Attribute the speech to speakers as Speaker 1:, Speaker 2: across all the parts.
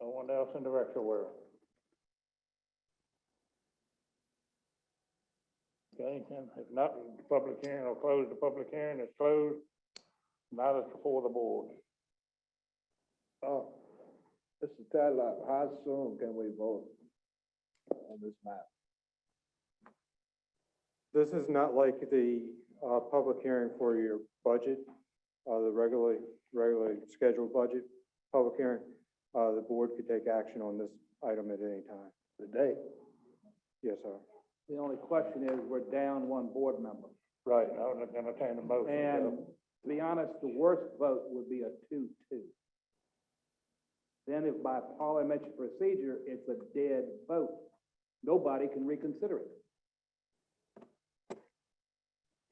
Speaker 1: Someone else in the retro world. Okay, then, if not, the public hearing, I'll close the public hearing, it's closed. Now it's before the board.
Speaker 2: Oh, Mr. Tadlock, how soon can we vote on this map?
Speaker 3: This is not like the uh, public hearing for your budget, uh, the regularly, regularly scheduled budget, public hearing. Uh, The board could take action on this item at any time.
Speaker 2: Today?
Speaker 3: Yes, sir.
Speaker 4: The only question is, we're down one board member.
Speaker 1: Right, I was entertain a motion.
Speaker 4: And to be honest, the worst vote would be a two-two. Then if by parliamentary procedure, it's a dead vote, nobody can reconsider it.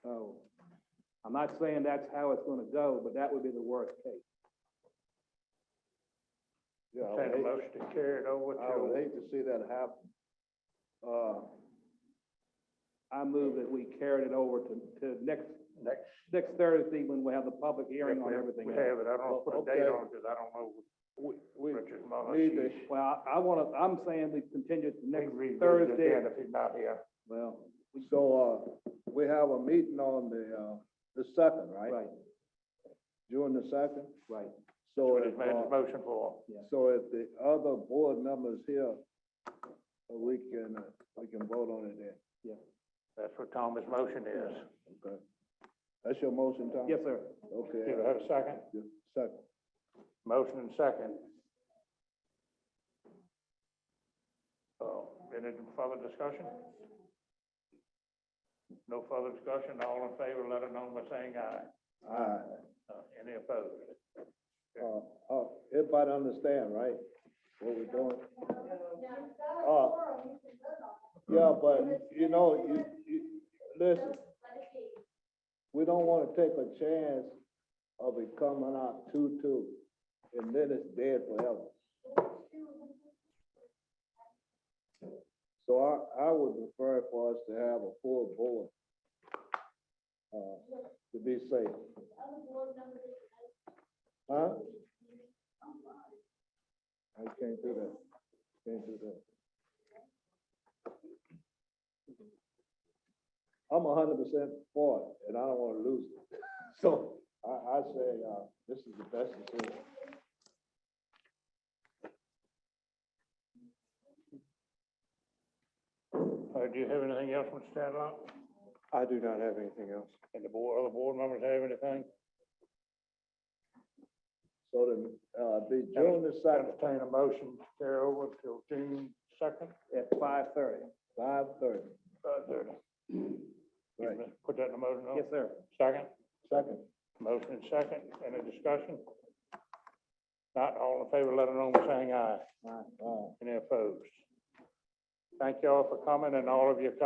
Speaker 4: So, I'm not saying that's how it's gonna go, but that would be the worst case.
Speaker 2: Yeah, I would
Speaker 1: Entertain a
Speaker 2: hate-
Speaker 1: motion to carry it over
Speaker 2: I would
Speaker 1: to,
Speaker 2: hate to see that happen. Uh,
Speaker 4: I move that we carried it over to, to next. Next. Next Thursday, when we have the public hearing on everything.
Speaker 1: we
Speaker 4: else.
Speaker 1: have it, I don't put a date
Speaker 2: Okay.
Speaker 1: on it, because I don't know
Speaker 2: we, we
Speaker 1: Richard Mullins.
Speaker 2: need to,
Speaker 4: Well, I I wanna, I'm saying we continue to next Thursday.
Speaker 1: Thursday, if he's not here.
Speaker 4: Well,
Speaker 2: so, uh, we have a meeting on the, uh, the second, right?
Speaker 4: right,
Speaker 2: June the second?
Speaker 4: right.
Speaker 2: So
Speaker 1: What
Speaker 2: if,
Speaker 1: he's made his
Speaker 2: uh,
Speaker 1: motion for.
Speaker 2: so if the other board members here, uh, we can, uh, we can vote on it then,
Speaker 1: That's what Thomas' motion is.
Speaker 2: okay? That's your motion, Tom?
Speaker 4: Yes, sir.
Speaker 2: Okay.
Speaker 1: Do I have a second?
Speaker 2: Yeah, Second.
Speaker 1: Motion and second. So, Oh, any further discussion? No further discussion, all in favor, let it know by saying aye.
Speaker 2: All right.
Speaker 1: Uh, Any opposed?
Speaker 2: Uh, uh, everybody understand, right? What we're doing? Uh, Yeah, but, you know, you, you, listen, we don't wanna take a chance of it coming out two-two, and then it's dead forever. So I, I would prefer for us to have a full board, uh, to be safe. Huh? I can't do that, can't do that. I'm a hundred percent for it, and I don't wanna lose it. So I, I say, uh, this is the best decision.
Speaker 1: Uh, do you have anything else, Mr. Tadlock?
Speaker 3: I do not have anything else.
Speaker 1: And the board, other board members have anything?
Speaker 2: So then, uh, the June the second,
Speaker 1: Entertain a motion to carry over till June second,
Speaker 4: At five thirty.
Speaker 2: five thirty,
Speaker 1: uh, thirty.
Speaker 2: right,
Speaker 1: Put that in the motion, no?
Speaker 4: Yes, sir.
Speaker 1: Second?
Speaker 2: second.
Speaker 1: Motion and second, any discussion? Not all in favor, let it know by saying aye.
Speaker 2: Uh,
Speaker 1: Any opposed? Thank you all for coming and all of your comments.